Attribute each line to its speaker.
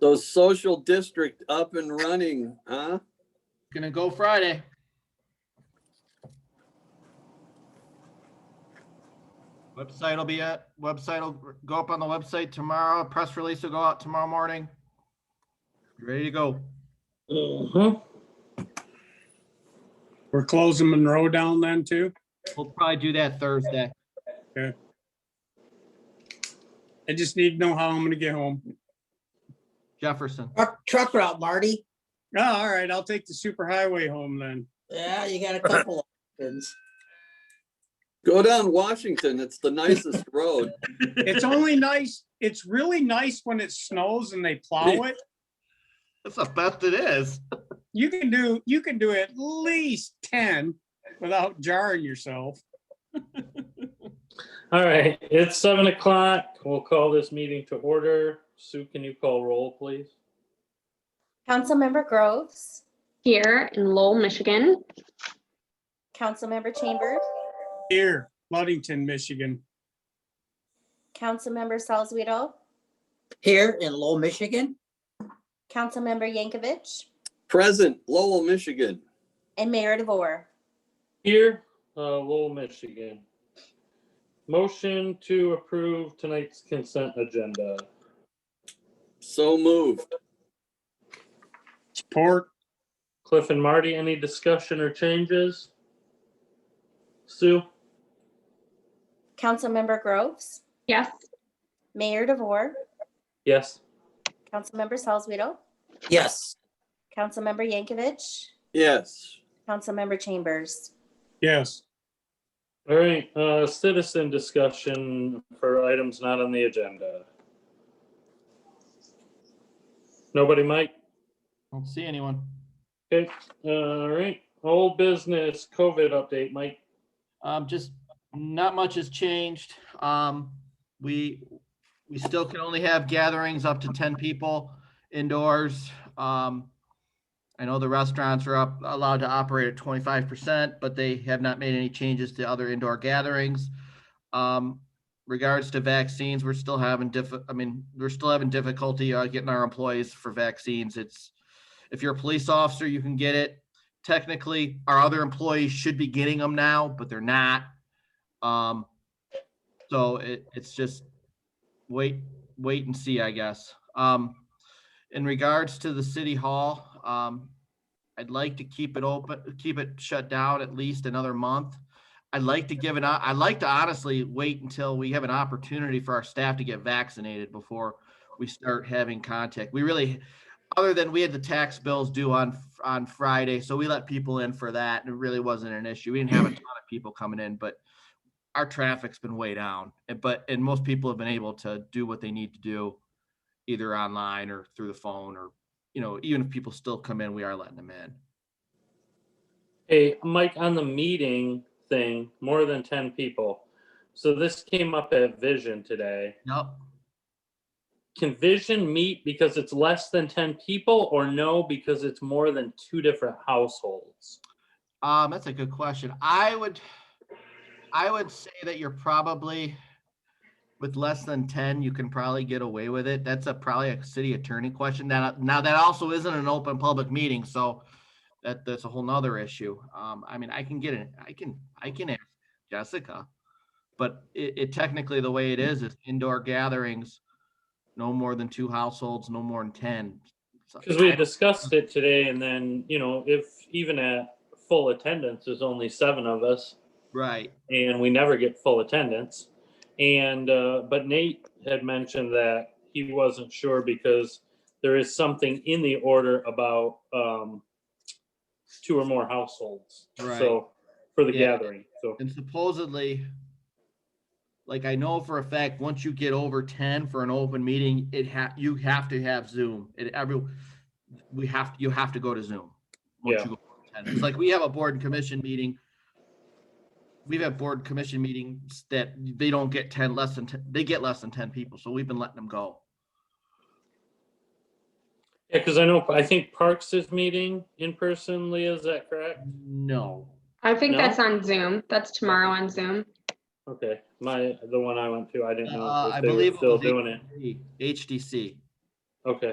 Speaker 1: those social district up and running, huh?
Speaker 2: Gonna go Friday. Website will be at, website will go up on the website tomorrow, press release will go out tomorrow morning. You Ready to go.
Speaker 3: We're closing Monroe down then too?
Speaker 2: We'll probably do that Thursday.
Speaker 3: I just need to know how I'm gonna get home.
Speaker 2: Jefferson,
Speaker 4: Truck, truck route, Marty.
Speaker 3: Oh, all right, I'll take the superhighway home then.
Speaker 4: Yeah, you got a couple of options.
Speaker 1: Go down Washington. It's the nicest road.
Speaker 3: It's only nice, it's really nice when it snows and they plow it.
Speaker 2: that's the best it is.
Speaker 3: You can do, you can do at least ten without jarring yourself.
Speaker 5: All right, it's seven o'clock. We'll call this meeting to order. Sue, can you call roll, please?
Speaker 6: Councilmember Groves,
Speaker 7: here in Lowell, Michigan.
Speaker 6: Councilmember Chambers,
Speaker 3: Here, Ludington, Michigan.
Speaker 6: Councilmember Salzweedl,
Speaker 4: Here in Lowell, Michigan,
Speaker 6: Councilmember Yankovic,
Speaker 1: Present Lowell, Michigan.
Speaker 6: and Mayor DeVore.
Speaker 5: Here, uh, Lowell, Michigan. Motion to approve tonight's consent agenda.
Speaker 1: So moved.
Speaker 3: Support,
Speaker 5: Cliff and Marty, any discussion or changes? Sue?
Speaker 6: Councilmember Groves,
Speaker 7: Yes,
Speaker 6: Mayor DeVore,
Speaker 5: Yes.
Speaker 6: Councilmember Salzweedl,
Speaker 4: yes.
Speaker 6: Councilmember Yankovic,
Speaker 1: Yes.
Speaker 6: Councilmember Chambers.
Speaker 3: yes.
Speaker 5: All right, uh, citizen discussion for items not on the agenda. Nobody, Mike?
Speaker 2: Don't see anyone.
Speaker 5: Okay, all right, old business COVID update, Mike.
Speaker 2: Um, just not much has changed. Um, we, we still can only have gatherings up to ten people indoors. Um, I know the restaurants are up, allowed to operate at twenty-five percent, but they have not made any changes to other indoor gatherings. Um, regards to vaccines, we're still having diff, I mean, we're still having difficulty, uh, getting our employees for vaccines. It's, if you're a police officer, you can get it technically our other employees should be getting them now, but they're not. Um, so it, it's just wait, wait and see, I guess. Um, in regards to the city hall, um, I'd like to keep it open, keep it shut down at least another month. I'd like to give it, i I'd like to honestly wait until we have an opportunity for our staff to get vaccinated before we start having contact. We really, other than we had the tax bills due on on Friday, so we let people in for that, and it really wasn't an issue. We didn't have a ton of people coming in, but our traffic's been way down. and- But and most people have been able to do what they need to do, either online or through the phone, or you know, even if people still come in, we are letting them in.
Speaker 5: Hey, Mike, on the meeting thing, more than ten people. So this came up at Vision today.
Speaker 2: Yep.
Speaker 5: Can Vision meet because it's less than ten people or no, because it's more than two different households?
Speaker 2: Um, that's a good question. I would, I would say that you're probably with less than ten, you can probably get away with it. That's a probably a city attorney question. Now, now that also isn't an open public meeting, so that that's a whole nother issue. Um, I mean, I can get it. I can, I can ask Jessica, but it, it technically the way it is is indoor gatherings, no more than two households, no more than ten. So
Speaker 5: Because we
Speaker 2: I-
Speaker 5: had discussed it today and then, you know, if even at full attendance, there's only seven of us
Speaker 2: right.
Speaker 5: and we never get full attendance. And, uh, but Nate had mentioned that he wasn't sure because there is something in the order about, um, two or more households.
Speaker 2: Right.
Speaker 5: So, for the
Speaker 2: Yeah.
Speaker 5: gathering, so,
Speaker 2: And supposedly, like I know for a fact, once you get over ten for an open meeting, it ha, you have to have Zoom. It every, we have, you have to go to Zoom. once
Speaker 5: Yeah.
Speaker 2: you go over 10. It's like we have a board and commission meeting. We've had board commission meetings that they don't get ten, less than, 10 they get less than ten people, so we've been letting them go.
Speaker 5: yeah, because I know, I think Parks is meeting in person, Leah, is that correct?
Speaker 2: No,
Speaker 7: I think
Speaker 5: No?
Speaker 7: that's on Zoom. That's tomorrow on Zoom.
Speaker 5: Okay, my, the one I went to, I didn't know
Speaker 2: Uh, I
Speaker 5: if they were
Speaker 2: believe it
Speaker 5: still
Speaker 2: was eight-
Speaker 5: doing it.
Speaker 2: HDC.
Speaker 5: Okay.